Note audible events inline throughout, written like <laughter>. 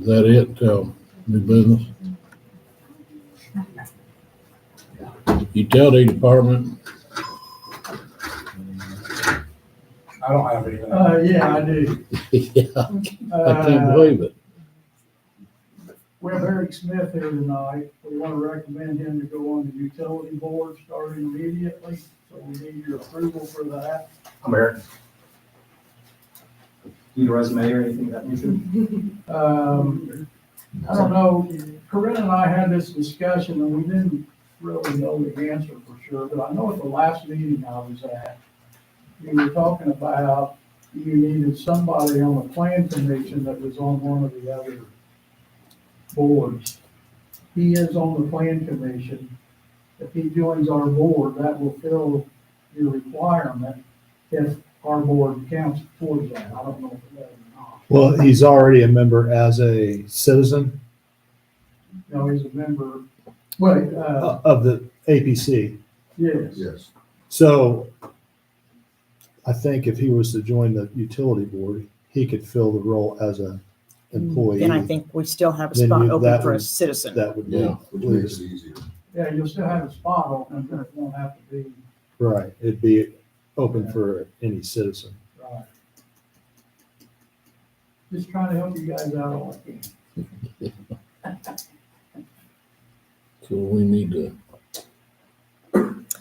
that it, um, new business? Utility department, <laughs> I don't have anything. Uh, yeah, I do. yeah, I can't Uh, believe it. We have Eric Smith here tonight. We want to recommend him to go on the utility board starting immediately. So we need your approval for that. I'm Eric. Need a resume or anything of that nature? Um, I don't know, Corinne and I had this discussion and we didn't really know the answer for sure, but I know at the last meeting I was at, you were talking about you needed somebody on the plan commission that was on one of the other boards. He is on the plan commission. If he joins our board, that will fill your requirement if our board counts towards that. I don't know if it does or not. Well, he's already a member as a citizen No, he's a member, wait, uh, of the APC. yes, Yes. So I think if he was to join the utility board, he could fill the role as a employee. Then I think we still have a Then spot you- open that for a would- citizen. That would Yeah. be, Which makes it easier. yeah, you'll still have a spot open, but it won't have to be, right, it'd be open for any citizen. right. Just trying to help you guys out all I can. So we need to,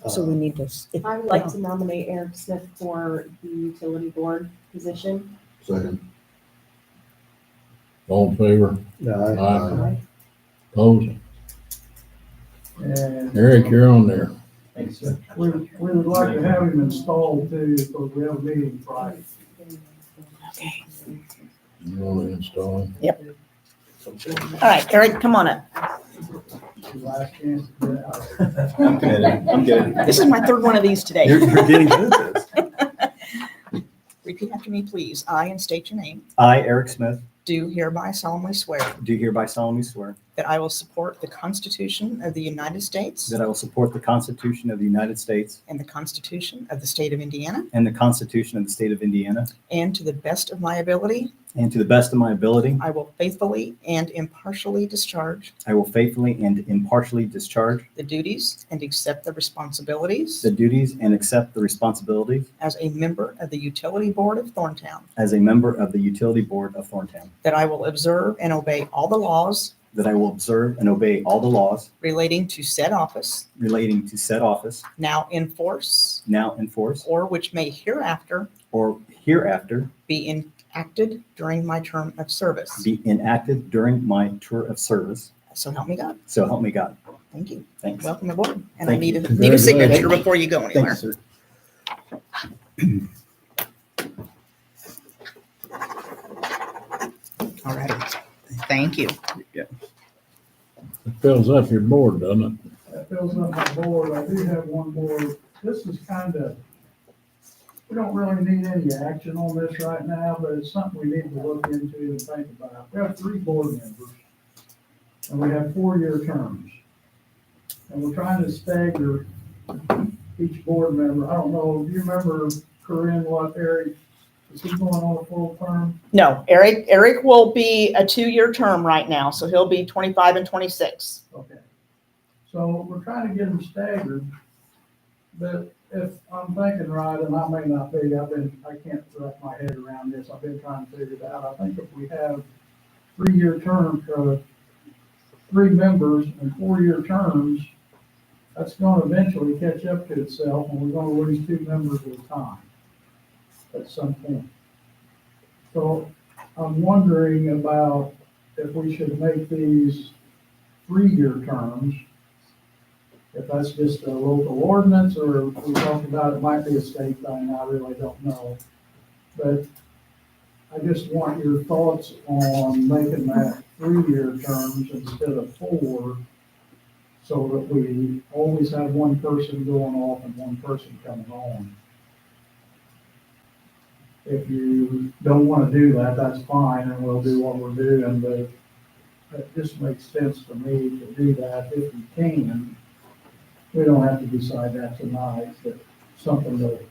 uh, So we need to, s- if- I would like to nominate Eric Smith for the utility board position. Second. all in favor, Uh, No, aye, opposed, And Eric, you're on there. Thanks, sir. we, we would like to have him installed too, because we have a meeting Friday. okay. You want to install him? All right, Eric, come on up. It's your Last chance to get out. I'm kidding, I'm kidding. This is my third one of these You're, today. you're getting good at this. Repeat after me, please. I, and state your name, I, Eric Smith, do hereby solemnly swear do hereby solemnly swear that I will support the Constitution of the United States that I will support the Constitution of the United States and the Constitution of the State of Indiana, and the Constitution of the State of Indiana, and to the best of my ability, and to the best of my ability, I will faithfully and impartially discharge I will faithfully and impartially discharge the duties and accept the responsibilities the duties and accept the responsibilities as a member of the Utility Board of Thorntown, as a member of the Utility Board of Thorntown, that I will observe and obey all the laws that I will observe and obey all the laws relating to said office relating to said office now in force now in force or which may hereafter or hereafter be enacted during my term of service. be enacted during my tour of service. So help me God. So help me God. Thank you. Thanks. Welcome aboard. And I Thank need you. a, need a signature Congratulations. before you go Thank you, anywhere. sir. All right. Thank you. It fills up your board, doesn't it? That fills up my board. I do have one more. This is kind of, we don't really need any action on this right now, but it's something we need to look into and think about. We have three board members, and we have four-year terms. And we're trying to stagger each board member. I don't know, do you remember Corinne, what, Eric? Is he going on a full term? No, Eric, Eric will be a two-year term right now, so he'll be 25 and 26. Okay. So we're trying to get them staggered, but if I'm thinking right, and I may not be, I've been, I can't wrap my head around this, I've been trying to figure it out. I think if we have three-year term, uh, three members and four-year terms, that's gonna eventually catch up to itself, and we're gonna lose two members at a time at some point. So I'm wondering about if we should make these three-year terms. If that's just a local ordinance, or we talked about it might be a state thing, I really don't know. But I just want your thoughts on making that three-year terms instead of four, so that we always have one person going off and one person coming on. If you don't want to do that, that's fine, and we'll do what we're doing, but that just makes sense to me to do that if we can. We don't have to decide that tonight, but something to